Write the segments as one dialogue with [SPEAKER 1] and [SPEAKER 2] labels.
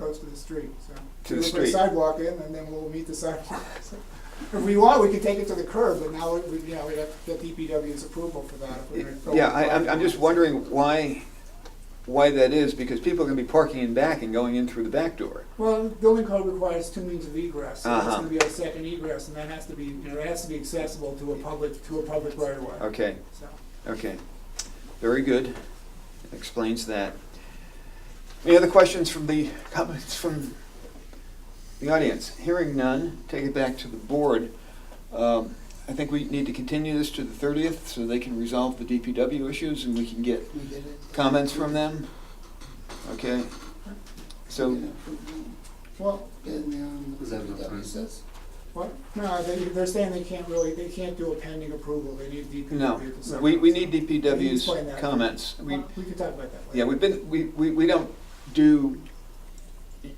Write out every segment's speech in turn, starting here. [SPEAKER 1] goes to the street, so.
[SPEAKER 2] To the
[SPEAKER 1] We put a
[SPEAKER 2] street.
[SPEAKER 1] Sidewalk in, and then we'll meet the sidewalk. So, If we want, we could take it to the curb, but now, we, you know, we'd have to get DPW's approval for that. if we were to go
[SPEAKER 2] Yeah,
[SPEAKER 1] with
[SPEAKER 2] I, I'm, I'm
[SPEAKER 1] driveways.
[SPEAKER 2] just wondering why, why that is, because people are gonna be parking in back and going in through the back door.
[SPEAKER 1] Well, building code requires two means of egress, so
[SPEAKER 2] Uh-huh.
[SPEAKER 1] that's gonna be our second egress, and that has to be, you know, it has to be accessible to a public, to a public right of way,
[SPEAKER 2] Okay,
[SPEAKER 1] so.
[SPEAKER 2] okay. Very good. Explains that. Any other questions from the, comments from the audience? Hearing none, take it back to the board. Um, I think we need to continue this to the thirtieth so they can resolve the DPW issues and we can get
[SPEAKER 3] We did it.
[SPEAKER 2] comments from them. Okay? So,
[SPEAKER 1] Well,
[SPEAKER 3] Didn't, um,
[SPEAKER 4] Is that enough time?
[SPEAKER 3] DPW says?
[SPEAKER 1] what, no, they, they're saying they can't really, they can't do a pending approval, they need DPW to.
[SPEAKER 2] No,
[SPEAKER 1] separate.
[SPEAKER 2] we, we need
[SPEAKER 1] Can you explain
[SPEAKER 2] DPW's
[SPEAKER 1] that?
[SPEAKER 2] comments. We,
[SPEAKER 1] Well, We could talk about that later.
[SPEAKER 2] yeah, we've been, we, we, we don't do,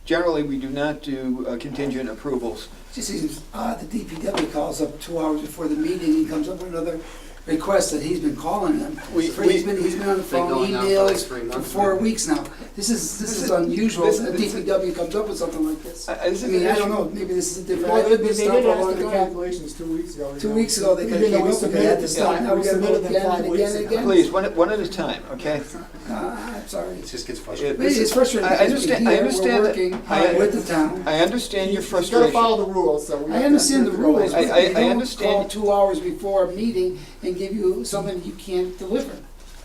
[SPEAKER 2] generally, we do not do uh, contingent approvals.
[SPEAKER 3] Just seems odd, "Ah, the DPW calls up two hours before the meeting, he comes up with another request that he's been calling them.
[SPEAKER 2] We-
[SPEAKER 3] For- He's
[SPEAKER 2] we-
[SPEAKER 3] been, he's been on the
[SPEAKER 4] Been
[SPEAKER 3] phone,
[SPEAKER 4] going on for like
[SPEAKER 3] emails,
[SPEAKER 4] three
[SPEAKER 3] for
[SPEAKER 4] months
[SPEAKER 3] four
[SPEAKER 4] now.
[SPEAKER 3] weeks now. This is,
[SPEAKER 2] This
[SPEAKER 3] this
[SPEAKER 2] is-
[SPEAKER 3] is unusual,
[SPEAKER 2] this-
[SPEAKER 3] that
[SPEAKER 2] this is-
[SPEAKER 3] DPW comes up with something like this.
[SPEAKER 2] I- I- this
[SPEAKER 3] I
[SPEAKER 2] is
[SPEAKER 3] mean,
[SPEAKER 2] an
[SPEAKER 3] I don't
[SPEAKER 2] issue-
[SPEAKER 3] know, maybe this is a different,
[SPEAKER 1] Well,
[SPEAKER 3] I've
[SPEAKER 1] they,
[SPEAKER 3] been
[SPEAKER 1] they did
[SPEAKER 3] stopped for a
[SPEAKER 1] ask
[SPEAKER 3] long
[SPEAKER 1] the
[SPEAKER 3] time.
[SPEAKER 1] calculations two weeks ago. you
[SPEAKER 3] Two
[SPEAKER 1] know.
[SPEAKER 3] weeks ago, they
[SPEAKER 1] Even
[SPEAKER 3] kinda
[SPEAKER 1] though we
[SPEAKER 3] came up with it,
[SPEAKER 1] submitted
[SPEAKER 3] had to
[SPEAKER 1] them,
[SPEAKER 3] stop,
[SPEAKER 1] yeah,
[SPEAKER 3] now we
[SPEAKER 1] we
[SPEAKER 3] gotta go
[SPEAKER 1] submitted them
[SPEAKER 3] again
[SPEAKER 1] five
[SPEAKER 3] and
[SPEAKER 1] weeks
[SPEAKER 3] again and
[SPEAKER 1] ago.
[SPEAKER 3] again.
[SPEAKER 2] Please, one, at- one at a time, okay?
[SPEAKER 3] Ah, I'm sorry.
[SPEAKER 4] It just gets
[SPEAKER 2] It-
[SPEAKER 4] frustrating.
[SPEAKER 3] This is frustrating.
[SPEAKER 2] I- I
[SPEAKER 3] because we're
[SPEAKER 2] understand- I
[SPEAKER 3] here, we're
[SPEAKER 2] understand that-
[SPEAKER 3] working
[SPEAKER 2] I-
[SPEAKER 3] With the town.
[SPEAKER 2] I understand your
[SPEAKER 1] You've gotta
[SPEAKER 2] frustration.
[SPEAKER 1] follow the rules, so. we
[SPEAKER 3] I
[SPEAKER 1] have to-
[SPEAKER 3] understand the rules,
[SPEAKER 2] I-
[SPEAKER 3] but
[SPEAKER 2] I- I
[SPEAKER 3] they don't
[SPEAKER 2] understand.
[SPEAKER 3] call two hours before a meeting and give you something you can't deliver.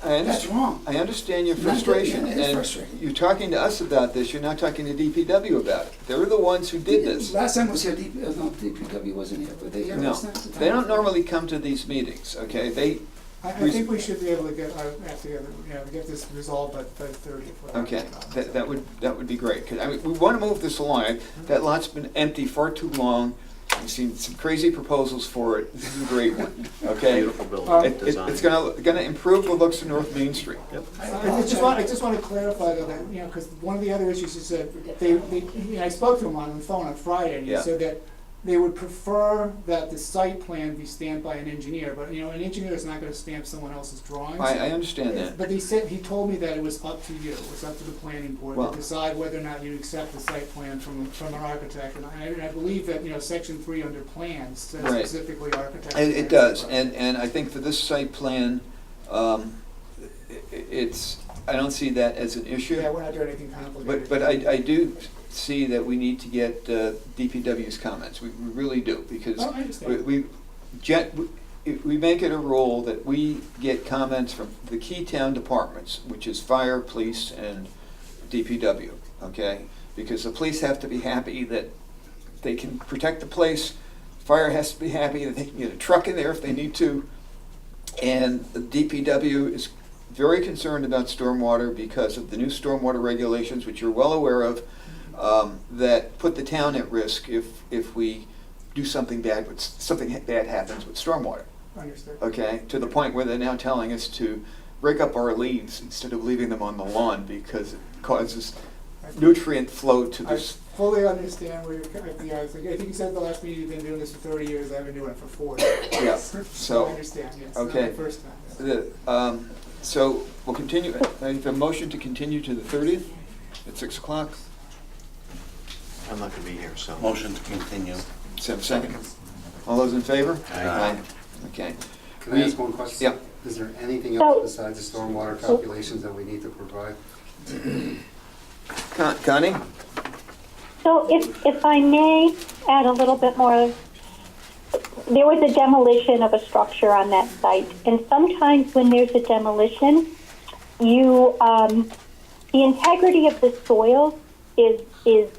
[SPEAKER 2] I
[SPEAKER 3] That's
[SPEAKER 2] understand,
[SPEAKER 3] wrong.
[SPEAKER 2] I understand your
[SPEAKER 3] Not that-
[SPEAKER 2] frustration.
[SPEAKER 3] yeah, it is
[SPEAKER 2] and
[SPEAKER 3] frustrating.
[SPEAKER 2] You're talking to us about this, you're not talking to DPW about it. They're the ones who did this.
[SPEAKER 3] Last time was here, D- uh, no, DPW wasn't here, but they here
[SPEAKER 2] No,
[SPEAKER 3] last time. the
[SPEAKER 2] they
[SPEAKER 3] time
[SPEAKER 2] don't
[SPEAKER 3] before.
[SPEAKER 2] normally come to these meetings, okay? They,
[SPEAKER 1] I, I think we should be able to get, uh, have to, get, you know, get this resolved by by thirty.
[SPEAKER 2] Okay, that, that would, that would be great, 'cause, I mean, we wanna move this along, that lot's been empty far too long, we've seen some crazy proposals for it, this is a great one, okay? It-
[SPEAKER 4] Beautiful
[SPEAKER 1] Uh,
[SPEAKER 4] building,
[SPEAKER 2] it-
[SPEAKER 4] design.
[SPEAKER 2] It's gonna, gonna improve the looks of North Main Street.
[SPEAKER 1] I I just want, I just want to clarify though, that, you know, because one of the other issues is that they, they, you know, I spoke to him on the phone on Friday, and he
[SPEAKER 2] Yeah.
[SPEAKER 1] said that they would prefer that the site plan be stamped by an engineer, but, you know, an engineer is not gonna stamp someone else's drawings.
[SPEAKER 2] I, I understand that.
[SPEAKER 1] But he said, he told me that it was up to you, it was up to the planning board
[SPEAKER 2] Well-
[SPEAKER 1] to decide whether or not you accept the site plan from, from an architect. And I, and I believe that, you know, section three under plans says
[SPEAKER 2] Right.
[SPEAKER 1] specifically architect.
[SPEAKER 2] It, it does, and, and I think for this site plan, um, i- i- it's, I don't see that as an issue.
[SPEAKER 1] Yeah, we're not doing anything complicated.
[SPEAKER 2] But, but I, I do see that we need to get uh, DPW's comments, we we really do, because
[SPEAKER 1] Oh, I
[SPEAKER 2] we,
[SPEAKER 1] understand.
[SPEAKER 2] we, gen- we- if we make it a rule that we get comments from the key town departments, which is fire, police, and DPW, okay? Because the police have to be happy that they can protect the place, fire has to be happy that they can get a truck in there if they need to. And the DPW is very concerned about stormwater because of the new stormwater regulations, which you're well aware of, um, that put the town at risk if, if we do something bad, with- something ha- bad happens with stormwater,
[SPEAKER 1] Understood.
[SPEAKER 2] okay? To the point where they're now telling us to break up our leaves instead of leaving them on the lawn because it causes nutrient flow to
[SPEAKER 1] I
[SPEAKER 2] this.
[SPEAKER 1] fully understand where you're, co- you know, it's like, I think you said the last meeting, you've been doing this for thirty years, I've been doing it for forty.
[SPEAKER 2] Yeah,
[SPEAKER 1] I
[SPEAKER 2] so,
[SPEAKER 1] understand, yes, not
[SPEAKER 2] okay.
[SPEAKER 1] the first time. yes.
[SPEAKER 2] the, um, so we'll continue, I have a motion to continue to the thirtieth at six o'clock.
[SPEAKER 4] I'm not gonna be here, so.
[SPEAKER 5] Motion to continue.
[SPEAKER 2] Is there a second? All those in favor?
[SPEAKER 5] Aye.
[SPEAKER 2] Okay.
[SPEAKER 6] Can I ask one question?
[SPEAKER 2] Yeah.
[SPEAKER 6] Is there anything else besides the stormwater calculations that we need to provide?
[SPEAKER 2] Con- Connie?
[SPEAKER 7] So if, if I may add a little bit more, there was a demolition of a structure on that site. And sometimes when there's a demolition, you, um, the integrity of the soil is, is,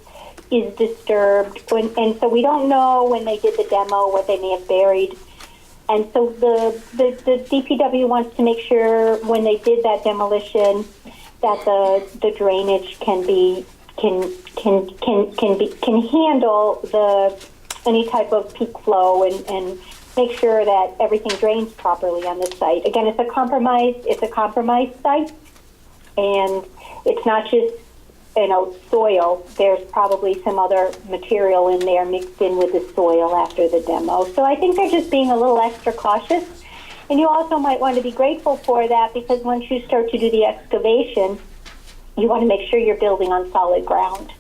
[SPEAKER 7] is disturbed. When, and so we don't know when they did the demo, what they may have buried. And so the, the, the DPW wants to make sure when they did that demolition that the, the drainage can be can can can can be can handle the any type of peak flow and, and make sure that everything drains properly on the site. Again, it's a compromise it's a compromised site and it's not just you know soil. There's probably some other material in there mixed in with the soil after the demo. So I think they're just being a little extra cautious. And you also might want to be grateful for that because once you start to do the excavation, you want to make sure you're building on solid ground.